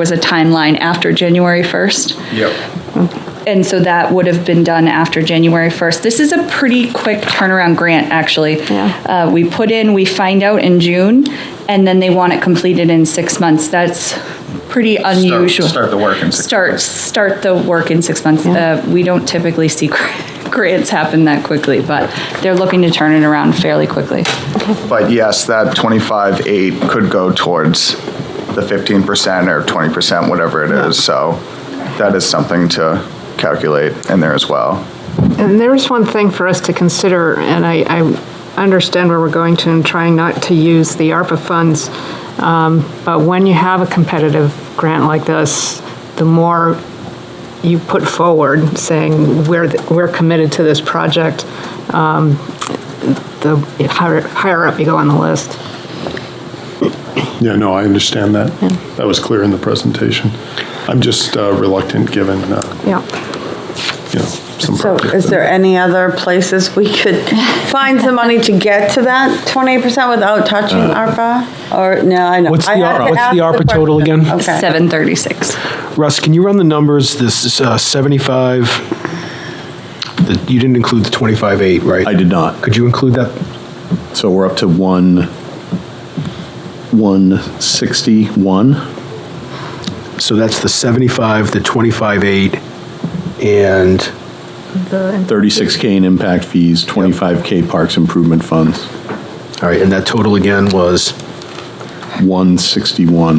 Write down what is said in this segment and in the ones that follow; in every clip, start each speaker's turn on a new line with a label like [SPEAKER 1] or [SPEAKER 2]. [SPEAKER 1] was a timeline after January 1st.
[SPEAKER 2] Yep.
[SPEAKER 1] And so that would have been done after January 1st. This is a pretty quick turnaround grant, actually.
[SPEAKER 3] Yeah.
[SPEAKER 1] Uh, We put in, we find out in June, and then they want it completed in six months. That's pretty unusual.
[SPEAKER 2] start the work in six
[SPEAKER 1] Start,
[SPEAKER 2] months.
[SPEAKER 1] start the work in six months. Uh, We don't typically see gr- grants happen that quickly, but they're looking to turn it around fairly quickly.
[SPEAKER 2] But yes, that 25.8 could go towards the 15% or 20%, whatever it is. So that is something to calculate in there as well.
[SPEAKER 3] And there's one thing for us to consider, and I, I understand where we're going to and trying not to use the ARPA funds. um, But when you have a competitive grant like this, the more you put forward saying, we're, th- we're committed to this project, um, the higher, higher up you go on the list.
[SPEAKER 4] Yeah, no, I understand that. That was clear in the presentation. I'm just uh, reluctant, given, uh,
[SPEAKER 3] Yeah.
[SPEAKER 4] you know, some.
[SPEAKER 5] So
[SPEAKER 4] projects
[SPEAKER 5] is there
[SPEAKER 4] that-
[SPEAKER 5] any other places we could find some money to get to that 28% without touching ARPA? Or, no, I know.
[SPEAKER 6] Uh, What's the
[SPEAKER 5] I had
[SPEAKER 6] ARPA?
[SPEAKER 5] to
[SPEAKER 6] What's
[SPEAKER 5] ask
[SPEAKER 6] the ARPA
[SPEAKER 5] question.
[SPEAKER 6] total again?
[SPEAKER 5] Okay.
[SPEAKER 1] 736.
[SPEAKER 6] Russ, can you run the numbers? This is uh, 75, the- you didn't include the 25.8, right?
[SPEAKER 7] I did not.
[SPEAKER 6] Could you include that?
[SPEAKER 7] So we're up to one, 161.
[SPEAKER 6] So that's the 75, the 25.8, and,
[SPEAKER 7] 36K in impact fees, 25K parks improvement funds,
[SPEAKER 6] all right, and that total again was,
[SPEAKER 7] 161.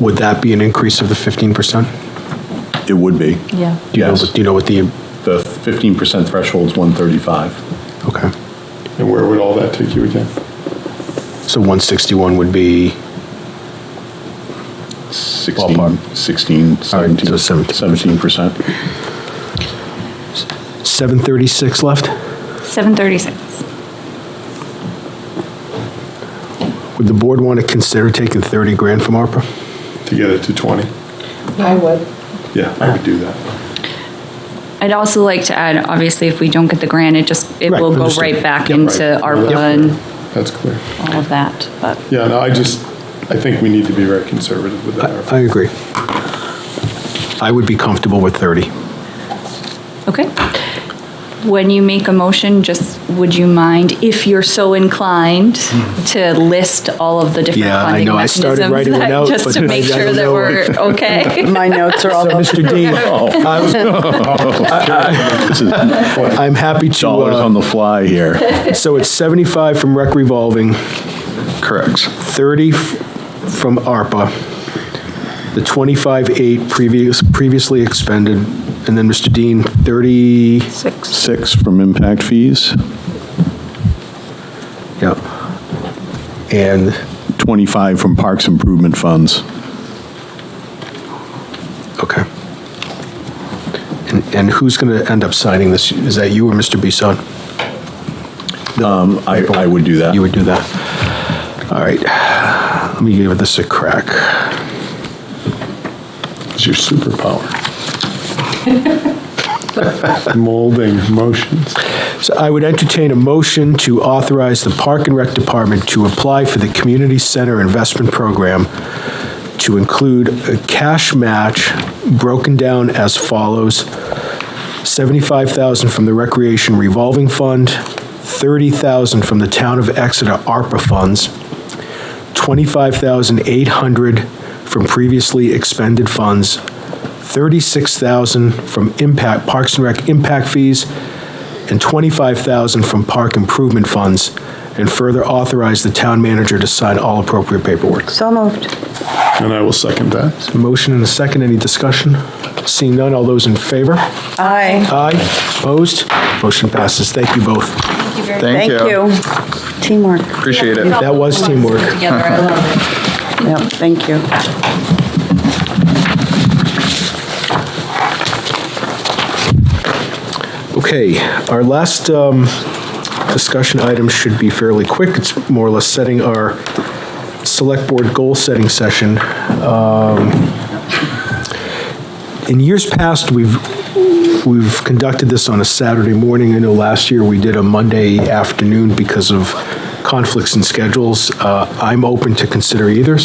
[SPEAKER 6] would that be an increase of the 15%?
[SPEAKER 7] It would be.
[SPEAKER 1] Yeah.
[SPEAKER 6] Do you know,
[SPEAKER 7] Yes.
[SPEAKER 6] do you know what the,
[SPEAKER 7] The 15% threshold's 135.
[SPEAKER 6] okay.
[SPEAKER 4] And where would all that take you again?
[SPEAKER 6] So 161 would be,
[SPEAKER 7] 16, 16,
[SPEAKER 6] All right,
[SPEAKER 7] 17,
[SPEAKER 6] so 17%.
[SPEAKER 7] 17%.
[SPEAKER 6] 736 left?
[SPEAKER 1] 736.
[SPEAKER 6] Would the board want to consider taking 30 grand from ARPA?
[SPEAKER 4] To get it to 20?
[SPEAKER 3] I would.
[SPEAKER 4] Yeah, I would do that.
[SPEAKER 1] I'd also like to add, obviously, if we don't get the grant, it just, it
[SPEAKER 6] Right,
[SPEAKER 1] will go
[SPEAKER 6] understood.
[SPEAKER 1] right back
[SPEAKER 6] Yep.
[SPEAKER 1] into
[SPEAKER 4] Right.
[SPEAKER 1] ARPA
[SPEAKER 4] Yep.
[SPEAKER 1] and
[SPEAKER 4] That's clear.
[SPEAKER 1] all of that, but.
[SPEAKER 4] Yeah, no, I just, I think we need to be very conservative with
[SPEAKER 6] I I
[SPEAKER 4] that.
[SPEAKER 6] agree. I would be comfortable with 30.
[SPEAKER 1] Okay. When you make a motion, just, would you mind, if you're so inclined, to list all of the different
[SPEAKER 6] Hmm. Yeah, I
[SPEAKER 1] funding
[SPEAKER 6] know. I started
[SPEAKER 1] mechanisms?
[SPEAKER 6] writing one
[SPEAKER 1] that-
[SPEAKER 6] out,
[SPEAKER 1] Just
[SPEAKER 6] but
[SPEAKER 1] to
[SPEAKER 6] I-
[SPEAKER 1] make
[SPEAKER 6] I
[SPEAKER 1] sure
[SPEAKER 6] don't
[SPEAKER 1] that
[SPEAKER 6] know.
[SPEAKER 1] we're okay.
[SPEAKER 5] My notes are all over.
[SPEAKER 6] Mr. Dean, Oh.
[SPEAKER 7] This is
[SPEAKER 6] I'm happy to,
[SPEAKER 7] dollars on
[SPEAKER 6] uh,
[SPEAKER 7] the fly here.
[SPEAKER 6] so it's 75 from rec revolving,
[SPEAKER 2] Correct.
[SPEAKER 6] 30 f- from ARPA, the 25.8 previous, previously expended, and then Mr. Dean, 30,
[SPEAKER 3] Six.
[SPEAKER 7] Six from impact fees,
[SPEAKER 6] yeah. And,
[SPEAKER 7] 25 from parks improvement funds.
[SPEAKER 6] okay. And- And who's going to end up signing this? Is that you or Mr. Bisson?
[SPEAKER 7] Um, I, I would do that.
[SPEAKER 6] You would do that. All right, let me give this a crack.
[SPEAKER 4] It's your superpower. Molding motions.
[SPEAKER 6] So I would entertain a motion to authorize the Park and Rec Department to apply for the Community Center Investment Program to include a cash match broken down as follows. 75,000 from the Recreation Revolving Fund, 30,000 from the Town of Exeter ARPA funds, 25,800 from previously expended funds, 36,000 from impact, Parks and Rec impact fees, and 25,000 from park improvement funds, and further authorize the town manager to sign all appropriate paperwork.
[SPEAKER 5] So moved.
[SPEAKER 4] And I will second that.
[SPEAKER 6] Motion and a second, any discussion? Seeing none, all those in favor?
[SPEAKER 5] Aye.
[SPEAKER 6] Aye, opposed? Motion passes, thank you both.
[SPEAKER 2] Thank you.
[SPEAKER 5] Teamwork.
[SPEAKER 2] Appreciate it.
[SPEAKER 6] That was teamwork.
[SPEAKER 1] Together, I love it.
[SPEAKER 5] Yep, thank you.
[SPEAKER 6] Okay, our last um, discussion item should be fairly quick. It's more or less setting our select board goal-setting session. Um, In years past, we've, we've conducted this on a Saturday morning. I know last year we did a Monday afternoon because of conflicts in schedules. Uh, I'm open to consider either,